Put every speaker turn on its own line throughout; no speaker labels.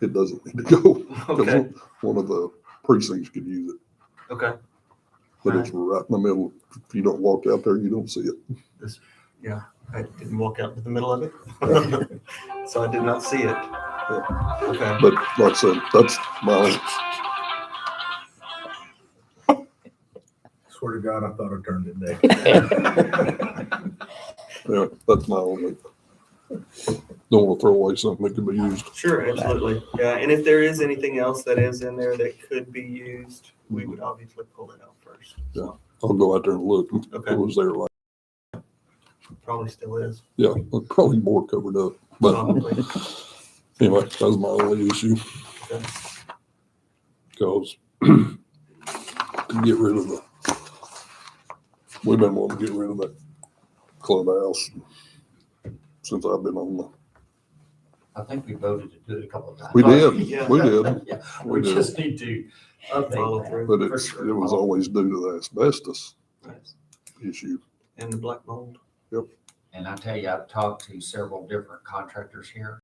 it doesn't need to go. 'cause
Okay,
One of the precincts could use it,
okay.
but it's right in the middle. If you don't walk out there, you don't see it.
I didn't walk out to the middle of it. So I did not see it. Okay,
But like I said, that's my,
Swear to God, I thought I turned it back.
yeah, that's my only. Don't want to throw away something that could be used.
sure, absolutely. Yeah, and if there is anything else that is in there that could be used, we would obviously pull it out first.
I'll go out there and look.
Okay,
It was there like,
probably still is.
yeah, probably more covered up. But
Probably.
anyway, that was my only issue.
Okay.
Cause to get rid of the, we've been wanting to get rid of that clubhouse since I've been on the,
I think we voted to do it a couple of times.
we did,
Yeah.
we did.
Yeah,
We
We
did.
just need to
Follow
update that.
through.
But it's, it was always due to the asbestos issue.
And the black mold.
And I tell you, I've talked to several different contractors here.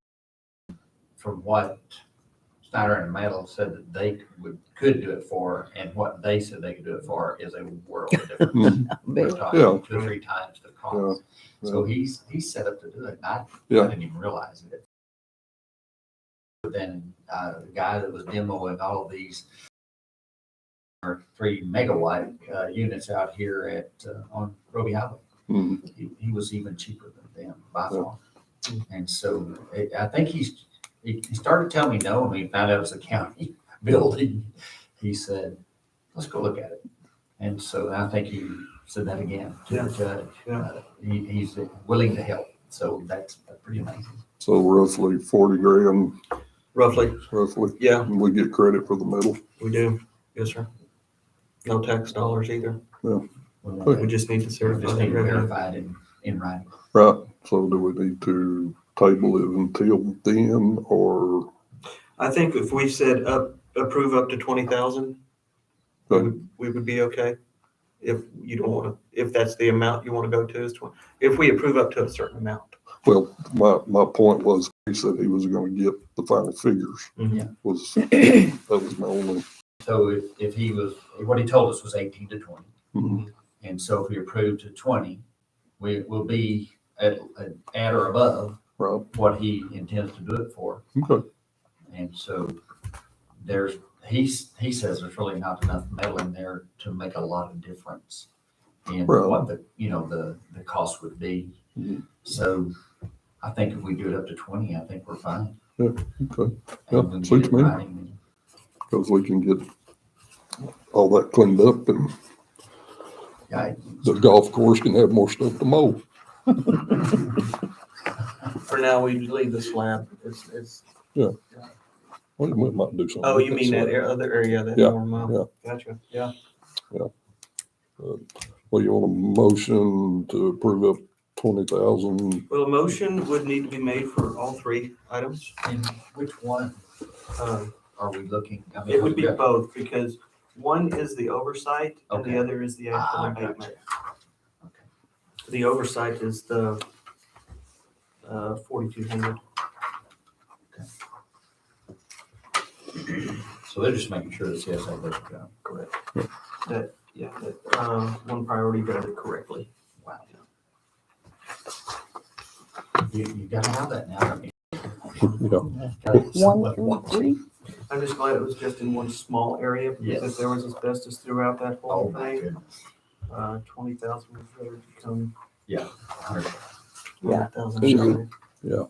From what Snyder and Metal said that they would, could do it for, and what they said they could do it for is a world of difference.
Mhm.
We're
Yeah.
talking two or three times the cost.
Yeah,
So he's, he's set up to do it. and I, I
Yeah.
didn't even realize it. But then, uh, the guy that was demoing all of these or three megawatt, uh, units out here at, uh, on Roby Highway
Mhm.
he, he was even cheaper than them by far. And so eh, I- I think he's, he he started telling me no, and he found out it was a county building. He said, let's go look at it. And so I think he said that again to the judge.
Yeah.
Uh, He, he's willing to help. So that's pretty amazing.
So roughly forty grand,
Roughly,
roughly,
yeah,
and we get credit for the metal.
we do. Yes, sir. No tax dollars either. We
We
just need to certify
just
the
need to
revenue.
verify it in, in writing.
Right, so do we need to table it until then or,
I think if we said up, approve up to twenty thousand, we
Okay.
would, we would be okay. If you don't want to, if that's the amount you want to go to is twenty, if we approve up to a certain amount.
well, my, my point was, he said he was gonna get the final figures.
Mhm.
Yeah.
Was, that was my only,
So if, if he was, what he told us was eighteen to twenty.
Mm-hmm.
Mhm.
And so if we approve to twenty, we will be at, at- at or above
right,
what he intends to do it for.
okay,
And so there's, he's, he says there's really not enough metal in there to make a lot of difference in
Right.
what the, you know, the, the cost would be.
Mhm.
So I think if we do it up to twenty, I think we're fine.
okay,
And
Yeah,
we get
suits
it
me.
running.
cause we can get all that cleaned up and
Yeah,
the golf course can have more stuff to mow.
For now, we leave the slab. It's, it's,
We we might do something.
oh,
with
you mean
slab.
that ar- other area, that
Yeah,
more mile? Gotcha, yeah.
Well, you want a motion to approve up twenty thousand?
Well, a motion would need to be made for all three items.
And which one
Um,
are we looking? I mean,
It would be
yeah.
both, because one is the oversight and the
Okay.
other is the actual
Ah,
abatement.
gotcha. Okay.
The oversight is the uh, forty-two hundred.
So they're just making sure the CSA does the job.
Correct. That, yeah, that, um, one priority does it correctly.
Wow. You, you gotta have that now. don't you?
Yeah,
Gotta have
One,
someone
two,
watch
three.
I'm just glad it was just in one small area, because if
Yes.
there was asbestos throughout that
all
whole
Oh, my
thing,
goodness.
uh, twenty thousand would really become
Yeah.
twenty thousand.
Easy. Yeah.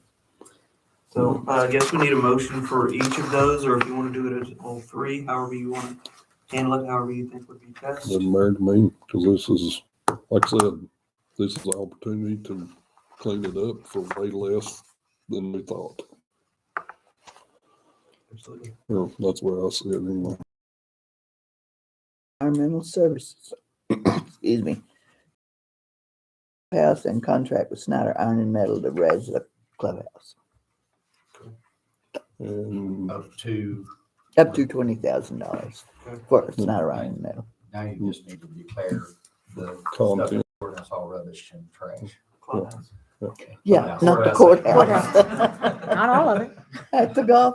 So uh, I guess we need a motion for each of those, or if you want to do it as all three, however you want to handle it, however you think would be best.
doesn't matter to me, cause this is, like I said, this is an opportunity to clean it up for way less than we thought.
Absolutely.
Well, that's where I see it anyway.
Environmental services. Excuse me. House and contract with Snyder Iron and Metal to raise the clubhouse
And
Up to,
up to twenty thousand dollars
Okay.
for Snyder Iron and Metal.
now you just need to declare the stuff
content,
in ordinance all rubbish and trash.
Clubhouse.
Yeah,
Courthouse.
not the
Courthouse.
courthouse.
Not all of it.
At the golf